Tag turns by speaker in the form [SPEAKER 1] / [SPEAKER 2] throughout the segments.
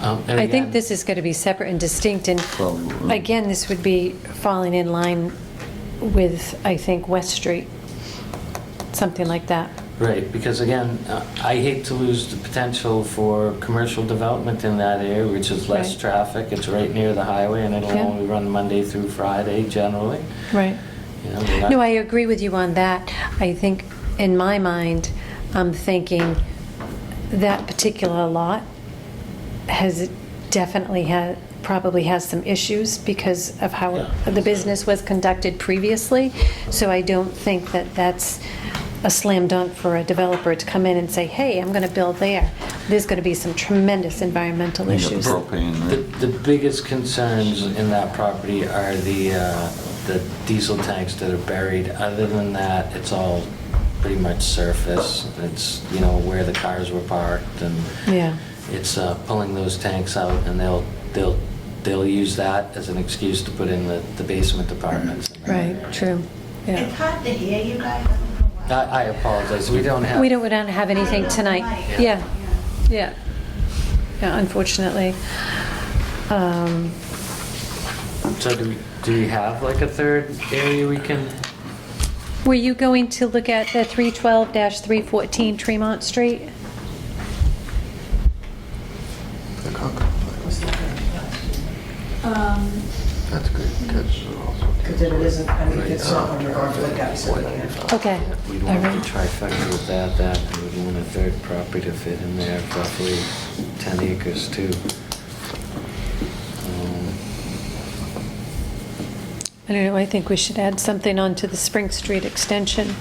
[SPEAKER 1] Um, and
[SPEAKER 2] I
[SPEAKER 1] again-
[SPEAKER 2] think this is going to be separate and distinct, and
[SPEAKER 3] Well, uh,
[SPEAKER 2] again, this would be falling in line with, I think, West Street, something like that.
[SPEAKER 1] Right, because again, uh, I hate to lose the potential for commercial development in that area, which is less
[SPEAKER 2] Right.
[SPEAKER 1] traffic, it's right near the highway, and it'll
[SPEAKER 2] Yeah.
[SPEAKER 1] only run Monday through Friday generally.
[SPEAKER 2] Right.
[SPEAKER 1] You know, we're not-
[SPEAKER 2] No, I agree with you on that. I think, in my mind, I'm thinking that particular lot has, definitely had, probably has some issues because of how
[SPEAKER 1] Yeah.
[SPEAKER 2] the business was conducted previously. So I don't think that that's a slam dunk for a developer to come in and say, hey, I'm going to build there. There's going to be some tremendous environmental
[SPEAKER 3] You got
[SPEAKER 2] issues.
[SPEAKER 3] propane,
[SPEAKER 1] The,
[SPEAKER 3] right?
[SPEAKER 1] the biggest concerns in that property are the, uh, the diesel tanks that are buried. Other than that, it's all pretty much surface. It's, you know, where the cars were parked and
[SPEAKER 2] Yeah.
[SPEAKER 1] it's uh, pulling those tanks out and they'll, they'll, they'll use that as an excuse to put in the, the basement apartments.
[SPEAKER 2] Right, true,
[SPEAKER 4] It's
[SPEAKER 2] yeah.
[SPEAKER 4] hard to hear you guys. I don't know why.
[SPEAKER 1] I, I apologize, we don't have.
[SPEAKER 2] We don't, we don't have anything
[SPEAKER 4] I don't
[SPEAKER 2] tonight.
[SPEAKER 4] like-
[SPEAKER 2] Yeah, yeah. Yeah, unfortunately. Um,
[SPEAKER 1] So do we, do we have like a third area we can?
[SPEAKER 2] Were you going to look at the 312-314 Tremont Street?
[SPEAKER 5] The Concord complex.
[SPEAKER 6] Um,
[SPEAKER 5] That's good, catch also.
[SPEAKER 7] Because it isn't, I mean, it's not under our lookout, so we can't.
[SPEAKER 2] Okay.
[SPEAKER 1] We'd want
[SPEAKER 2] All
[SPEAKER 1] the
[SPEAKER 2] right.
[SPEAKER 1] trifecta with that, that, and we'd want a third property to fit in there, roughly 10 acres too. Um,
[SPEAKER 2] I don't know, I think we should add something onto the Spring Street extension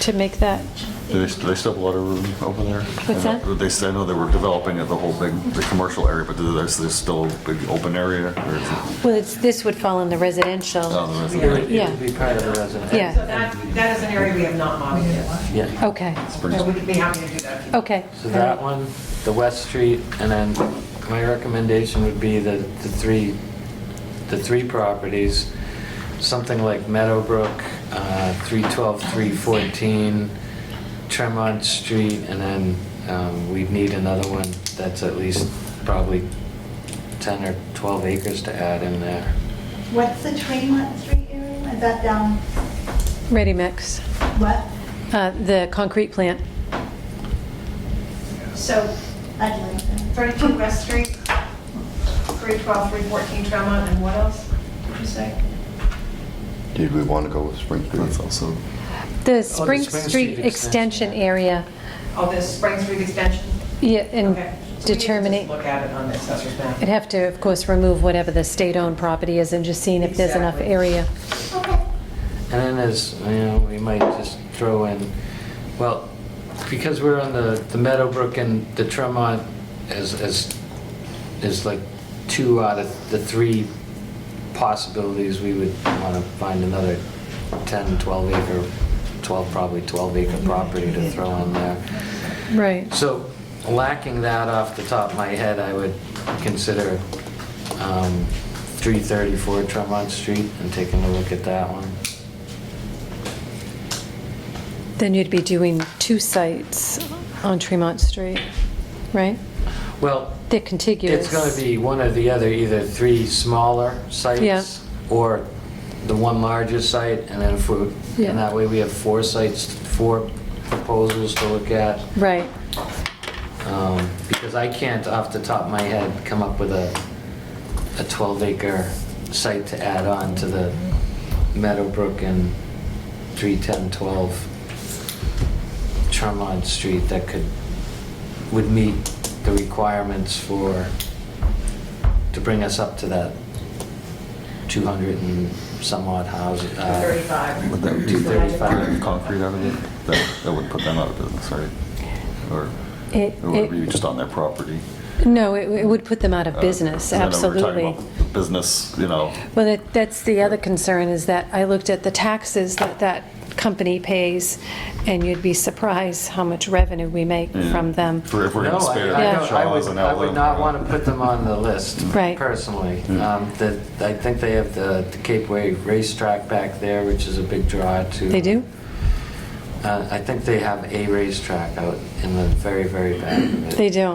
[SPEAKER 2] to make that,
[SPEAKER 3] Do they, do they still have a lot of room over there?
[SPEAKER 2] What's
[SPEAKER 3] I know-
[SPEAKER 2] that?
[SPEAKER 3] They said, I know they were developing it, the whole big, the commercial area, but there's, there's still a big open area? or is it-
[SPEAKER 2] well, it's, this would fall in the
[SPEAKER 3] Oh,
[SPEAKER 2] residential.
[SPEAKER 3] the rest of
[SPEAKER 1] It would
[SPEAKER 3] it?
[SPEAKER 1] it
[SPEAKER 2] Yeah.
[SPEAKER 1] would be part of the residential.
[SPEAKER 2] Yeah.
[SPEAKER 7] So that, that is an area we have not modified.
[SPEAKER 1] Yeah.
[SPEAKER 2] Okay,
[SPEAKER 3] Springs-
[SPEAKER 7] So we'd be happy to do that. if you-
[SPEAKER 2] okay.
[SPEAKER 1] So that one, the West Street, and then my recommendation would be the, the three, the three properties, something like Meadowbrook, uh, 312, 314, Tremont Street, and then um, we'd need another one that's at least probably 10 or 12 acres to add in there.
[SPEAKER 4] What's the Tremont Street area? Is that down,
[SPEAKER 2] Ready mix,
[SPEAKER 4] what?
[SPEAKER 2] Uh, the concrete plant.
[SPEAKER 4] So, I'd like that.
[SPEAKER 6] 32 West Street, 312, 314 Tremont, and what else did you say?
[SPEAKER 5] Did we want to go with Spring Street?
[SPEAKER 3] That's also,
[SPEAKER 2] The
[SPEAKER 1] Spring
[SPEAKER 2] Spring Street
[SPEAKER 1] Street
[SPEAKER 2] extension
[SPEAKER 1] extension.
[SPEAKER 2] area,
[SPEAKER 7] Oh, this Spring Street extension?
[SPEAKER 2] yeah,
[SPEAKER 7] Okay. So we need
[SPEAKER 2] and
[SPEAKER 7] to just
[SPEAKER 2] determining.
[SPEAKER 7] Look at it on the assessor's map.
[SPEAKER 2] I'd have to, of course, remove whatever the state-owned property is and just seeing if there's enough
[SPEAKER 7] Exactly.
[SPEAKER 2] area.
[SPEAKER 4] Okay.
[SPEAKER 1] And then as, you know, we might just throw in, well, because we're on the, the Meadowbrook and the Tremont is, is, is like two out of the three possibilities, we would wanna find another 10, 12 acre, 12, probably 12 acre property to throw in there.
[SPEAKER 2] Right.
[SPEAKER 1] So lacking that off the top of my head, I would consider um, 334 Tremont Street and taking a look at that one.
[SPEAKER 2] Then you'd be doing two sites on Tremont Street, right?
[SPEAKER 1] Well,
[SPEAKER 2] They're contiguous.
[SPEAKER 1] it's going to be one or the other, either three smaller
[SPEAKER 2] Yeah.
[SPEAKER 1] sites or the one larger site, and then if we,
[SPEAKER 2] Yeah.
[SPEAKER 1] and that way we have four sites, four proposals to look at.
[SPEAKER 2] Right,
[SPEAKER 1] Um, Because I can't, off the top of my head, come up with a, a 12-acre site to add on to the Meadowbrook and 31012 Tremont Street that could, would meet the requirements for, to bring us up to that 200 and some odd houses. uh,
[SPEAKER 7] 35.
[SPEAKER 3] would that would
[SPEAKER 1] Do
[SPEAKER 3] that
[SPEAKER 1] 35.
[SPEAKER 3] be concrete out of it? That, that would put them out of business, right? Or
[SPEAKER 2] It-
[SPEAKER 3] or would it be
[SPEAKER 2] it-
[SPEAKER 3] just on their property?
[SPEAKER 2] no, it it would put them out of
[SPEAKER 3] Uh,
[SPEAKER 2] business,
[SPEAKER 3] I know we were talking
[SPEAKER 2] absolutely.
[SPEAKER 3] about Business, you know,
[SPEAKER 2] Well, that- that's the other concern, is that I looked at the taxes that that company pays, and you'd be surprised how much revenue we make
[SPEAKER 3] Yeah.
[SPEAKER 2] from them.
[SPEAKER 3] for if we're
[SPEAKER 1] No,
[SPEAKER 3] going to
[SPEAKER 1] I-
[SPEAKER 3] spare
[SPEAKER 1] I
[SPEAKER 2] Yeah.
[SPEAKER 1] don't- I
[SPEAKER 3] Shaw's
[SPEAKER 1] would,
[SPEAKER 3] and
[SPEAKER 1] I would
[SPEAKER 3] Outlet,
[SPEAKER 1] not
[SPEAKER 3] uh,
[SPEAKER 1] want to put them on the list,
[SPEAKER 2] Right.
[SPEAKER 1] personally.
[SPEAKER 3] Yeah.
[SPEAKER 1] Um, the- I think they have the the Cape Way racetrack back there, which is a big draw to.
[SPEAKER 2] They do?
[SPEAKER 1] Uh, I think they have a racetrack out in the very, very back of it.
[SPEAKER 2] They do.